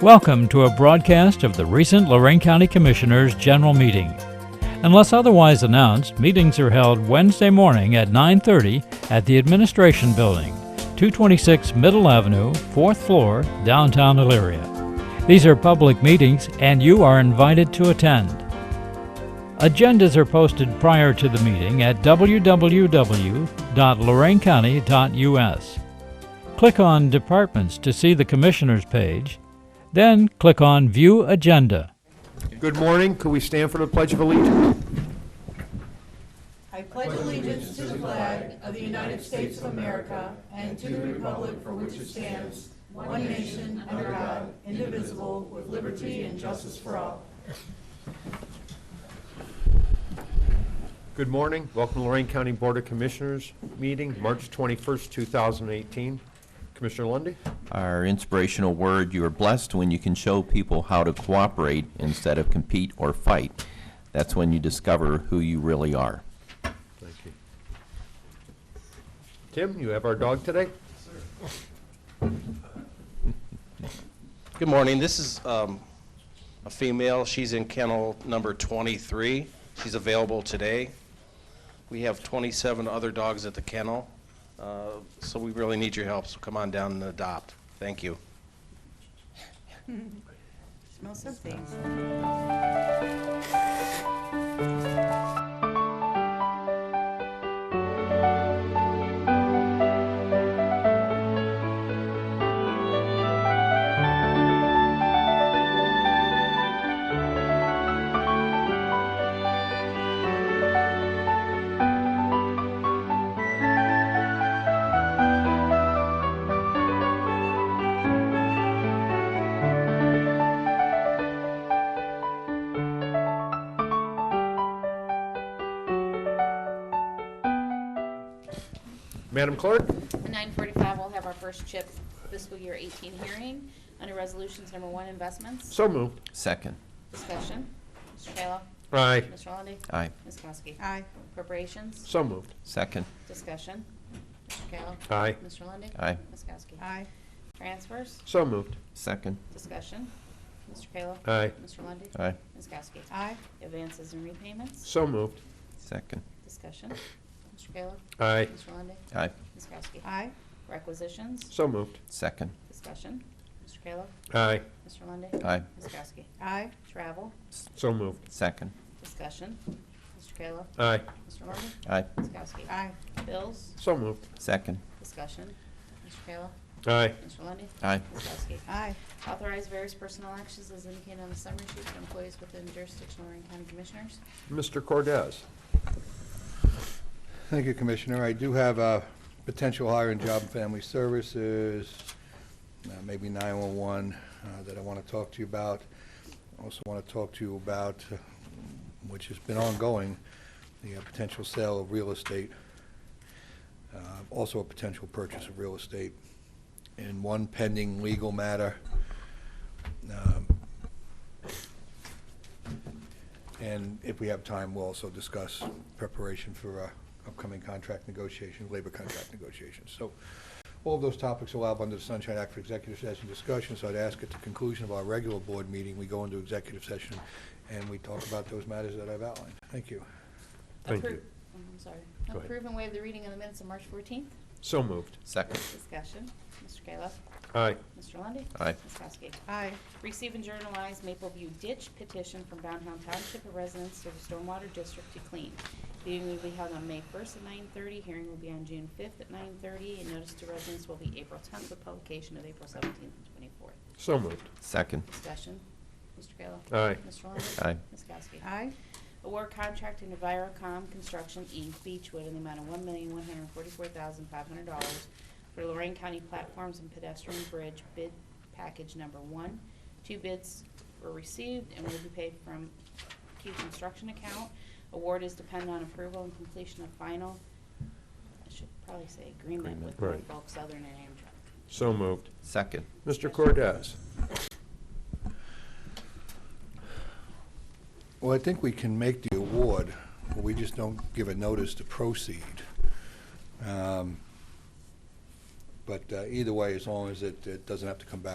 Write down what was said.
Welcome to a broadcast of the recent Lorraine County Commissioners' General Meeting. Unless otherwise announced, meetings are held Wednesday morning at 9:30 at the Administration Building, 226 Middle Avenue, 4th floor, downtown Elyria. These are public meetings and you are invited to attend. Agendas are posted prior to the meeting at www.loraincounty.us. Click on Departments to see the Commissioners page, then click on View Agenda. Good morning. Could we stand for the Pledge of Allegiance? Good morning. Welcome to Lorraine County Board of Commissioners meeting, March 21st, 2018. Commissioner Lundy. Our inspirational word, you are blessed when you can show people how to cooperate instead of compete or fight. That's when you discover who you really are. Thank you. Tim, you have our dog today? Good morning. This is um, a female. She's in kennel number 23. She's available today. We have 27 other dogs at the kennel, uh, so we really need your help. So come on down and adopt. Thank you. Smell something. Madam Clerk? At 9:45, we'll have our first CHIP fiscal year 18 hearing under resolutions number one, investments. So moved. Second. Discussion. Mr. Kayla. Aye. Mr. Lundey. Aye. Ms. Kowski. Aye. Appropriations. So moved. Second. Discussion. Mr. Kayla. Aye. Mr. Lundey. Aye. Ms. Kowski. Aye. Transfers. So moved. Second. Discussion. Mr. Kayla. Uh, Aye. Mr. Lundey. Aye. Ms. Kowski. Aye. Advances and repayments. So moved. Second. Discussion. Mr. Kayla. Aye. Mr. Lundey. Aye. Ms. Kowski. Aye. Requisitions. So moved. Second. Discussion. Mr. Kayla. Aye. Mr. Lundey. Aye. Ms. Kowski. Aye. Travel. So moved. Second. Discussion. Mr. Kayla. Aye. Mr. Lundey. Aye. Ms. Kowski. Aye. Bills. So moved. Second. Discussion. Mr. Kayla. Aye. Mr. Lundey. Aye. Ms. Kowski. Aye. Authorize various personnel actions as indicated on the summary sheet for employees within jurisdiction of Lorraine County Commissioners. Mr. Cordez? Thank you, Commissioner. I do have a potential hire in Job and Family Services, uh, maybe 911, uh, that I want to talk to you about. Also want to talk to you about, uh, which has been ongoing, the uh, potential sale of real estate, uh, also a potential purchase of real estate, and one pending legal matter. Um, And if we have time, we'll also discuss preparation for uh, upcoming contract negotiations, labor contract negotiations. So all of those topics allowed under the Sunshine Act for executive session discussion, so I'd ask at the conclusion of our regular board meeting, we go into executive session and we talk about those matters that I've outlined. Thank you. Thank Appro- you. oh, I'm sorry. Go ahead. Approve and waive the reading of the minutes of March 14th. So moved. Second. Discussion. Mr. Kayla. Aye. Mr. Lundey. Aye. Ms. Kowski. Aye. Receive and journalize Maple View ditch petition from downtown township of residents to the stormwater district to clean. The Meeting will be held on May first at nine thirty, hearing will be on June fifth at nine thirty, and notice to residents will be April tenth with publication of April seventeenth and twenty-fourth. So moved. Second. Discussion, Mr. Kayla. Aye. Mr. Lundey. Aye. Ms. Kowski. Aye. Award contract to Envirocom Construction, Inc., Beechwood, in the amount of one million, one hundred and forty-four thousand, five hundred dollars for Lorraine County Platforms and Pedestrian Bridge bid package number one. Two bids were received and will be paid from key construction account. Award is dependent on approval and completion of final, I should probably say agreement with Agreement. Right. Norfolk Southern and Amtrak. So moved. Second. Mr. Cordez? Well, I think we can make the award, but we just don't give a notice to proceed. Um, But uh, either way, as long as it it doesn't have to come back